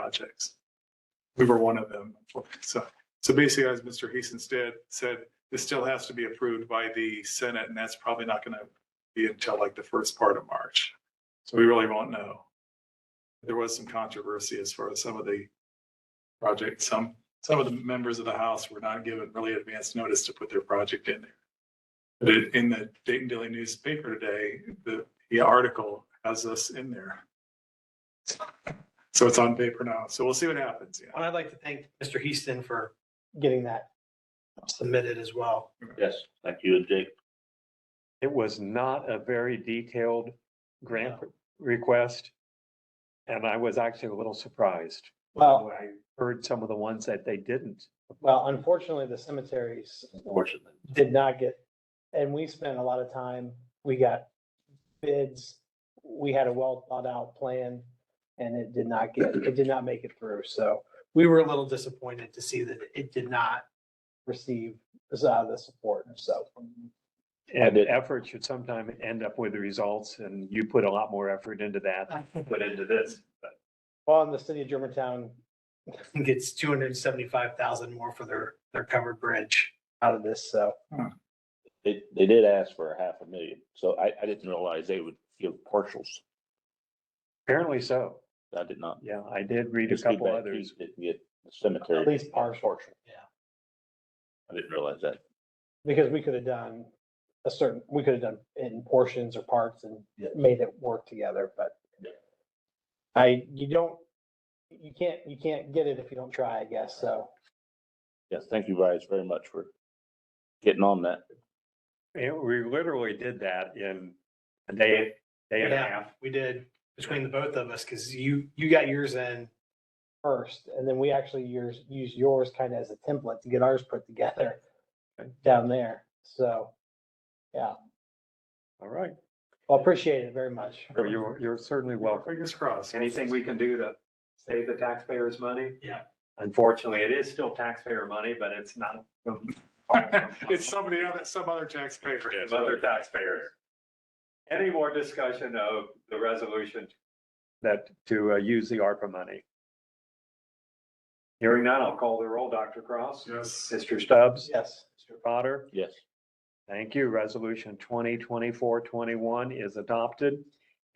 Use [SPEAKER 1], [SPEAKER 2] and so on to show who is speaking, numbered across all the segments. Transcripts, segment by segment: [SPEAKER 1] projects. We were one of them. So, so basically, as Mr. Heason said, said, this still has to be approved by the Senate, and that's probably not going to be until like the first part of March. So we really won't know. There was some controversy as far as some of the project, some, some of the members of the House were not given really advance notice to put their project in there. But it- in the Dayton Daily newspaper today, the, the article has us in there. So it's on paper now. So we'll see what happens. Yeah.
[SPEAKER 2] And I'd like to thank Mr. Heaston for getting that submitted as well.
[SPEAKER 3] Yes, thank you, Jake.
[SPEAKER 4] It was not a very detailed grant request. And I was actually a little surprised.
[SPEAKER 2] Well,
[SPEAKER 4] when I Heard some of the ones that they didn't.
[SPEAKER 2] well, unfortunately, the cemeteries
[SPEAKER 3] Fortunately.
[SPEAKER 2] did not get, and we spent a lot of time, we got bids. We had a well thought out plan and it did not get, it did not make it through. So we were a little disappointed to see that it did not receive uh, the support. So
[SPEAKER 4] And effort should sometime end up with results and you put a lot more effort into that, than you put into this. But
[SPEAKER 2] Well, and the city of Germantown gets two hundred and seventy-five thousand more for their, their covered bridge out of this, so.
[SPEAKER 3] They, they did ask for a half a million, so I, I didn't realize they would give partials.
[SPEAKER 4] Apparently so.
[SPEAKER 3] I did not.
[SPEAKER 4] Yeah, I did read a
[SPEAKER 3] Just too
[SPEAKER 4] couple
[SPEAKER 3] bad
[SPEAKER 4] others.
[SPEAKER 3] Keith Didn't get the cemetery.
[SPEAKER 2] At least partial, yeah,
[SPEAKER 3] I didn't realize that.
[SPEAKER 2] because we could have done a certain, we could have done in portions or parts and made it work together, but
[SPEAKER 3] Yeah.
[SPEAKER 2] I, you don't, you can't, you can't get it if you don't try, I guess, so.
[SPEAKER 3] Yes, thank you guys very much for getting on that.
[SPEAKER 4] Yeah, we literally did that in a day, day and a
[SPEAKER 5] Yeah,
[SPEAKER 4] half.
[SPEAKER 5] we did, between the both of us, because you, you got yours in,
[SPEAKER 2] First, and then we actually use, use yours kind of as a template to get ours put together down there, so.
[SPEAKER 4] All right.
[SPEAKER 2] Well, appreciate it very much.
[SPEAKER 4] Well, You're, you're certainly welcome.
[SPEAKER 1] Fingers crossed.
[SPEAKER 6] anything we can do to save the taxpayers money.
[SPEAKER 5] Yeah.
[SPEAKER 6] Unfortunately, it is still taxpayer money, but it's not. from-
[SPEAKER 1] It's somebody, other- some other taxpayer.
[SPEAKER 6] from Other taxpayers. Any more discussion of the resolution?
[SPEAKER 4] That to uh, use the ARPA money.
[SPEAKER 6] Hearing none, I'll call the roll. Dr. Cross?
[SPEAKER 1] Yes.
[SPEAKER 6] Mr. Stubbs?
[SPEAKER 4] Stubbs?
[SPEAKER 2] Yes.
[SPEAKER 4] Mr. Potter?
[SPEAKER 3] Yes,
[SPEAKER 4] Thank you. Resolution 2024 21 is adopted.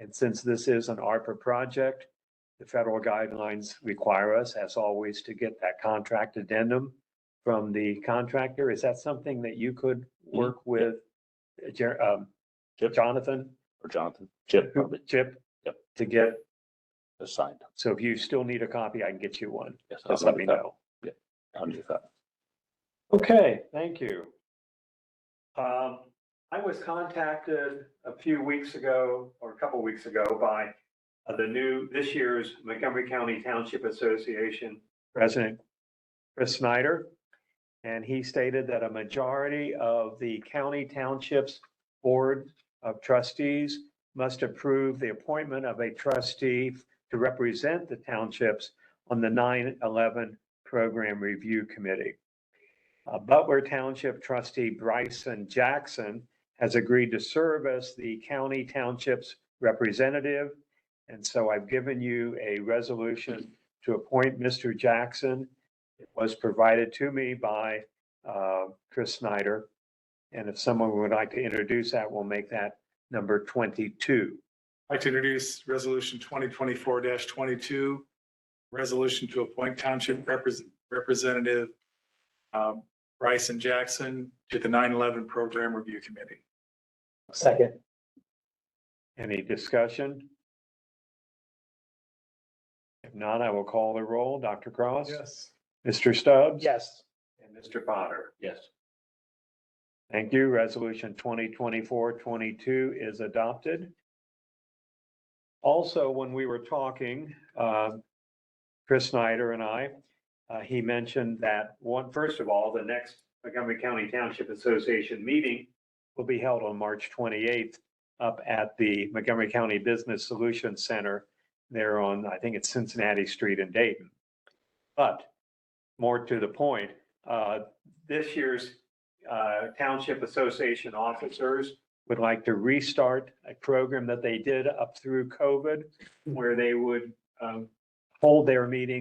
[SPEAKER 4] And since this is an ARPA project, the federal guidelines require us, as always, to get that contract addendum from the contractor. Is that something that you could work
[SPEAKER 3] Mm-hmm.
[SPEAKER 4] with uh, Jer- um,
[SPEAKER 3] Chip.
[SPEAKER 4] Jonathan?
[SPEAKER 3] or Jonathan, Chip probably
[SPEAKER 4] Chip?
[SPEAKER 3] Yep.
[SPEAKER 4] To get,
[SPEAKER 3] assigned.
[SPEAKER 4] so if you still need a copy, I can get you one.
[SPEAKER 3] Yes,
[SPEAKER 4] Just let me know.
[SPEAKER 3] Hundred thousand.
[SPEAKER 4] Okay, thank you.
[SPEAKER 6] Um, I was contacted a few weeks ago or a couple weeks ago by uh, the new, this year's Montgomery County Township Association
[SPEAKER 4] President Chris Snyder. And he stated that a majority of the county townships board of trustees must approve the appointment of a trustee to represent the townships on the 9-11 program review committee. Uh, Butler Township trustee Bryson Jackson has agreed to serve as the county township's representative. And so I've given you a resolution to appoint Mr. Jackson. It was provided to me by uh, Chris Snyder. And if someone would like to introduce that, we'll make that number 22.
[SPEAKER 1] I'd like to introduce resolution twenty twenty-four twenty-two. Resolution to appoint township Repres- representative um, Bryson Jackson to the 9/11 program review committee.
[SPEAKER 2] Second.
[SPEAKER 4] Any discussion? If not, I will call the roll. Dr. Cross?
[SPEAKER 1] Yes.
[SPEAKER 4] Mr. Stubbs?
[SPEAKER 2] Yes.
[SPEAKER 6] and Mr. Potter.
[SPEAKER 3] Yes,
[SPEAKER 4] Thank you. Resolution 2024-22 is adopted. Also, when we were talking, uh, Chris Snyder and I, uh, he mentioned that
[SPEAKER 6] One, first of all, the next Montgomery County Township Association meeting
[SPEAKER 4] will be held on March 28th up at the Montgomery County Business Solutions Center there on, I think it's Cincinnati Street in Dayton. But more to the point, uh,
[SPEAKER 6] this year's uh, Township Association officers,
[SPEAKER 4] would like to restart a program that they did up through COVID
[SPEAKER 6] where they would um,
[SPEAKER 4] hold their meeting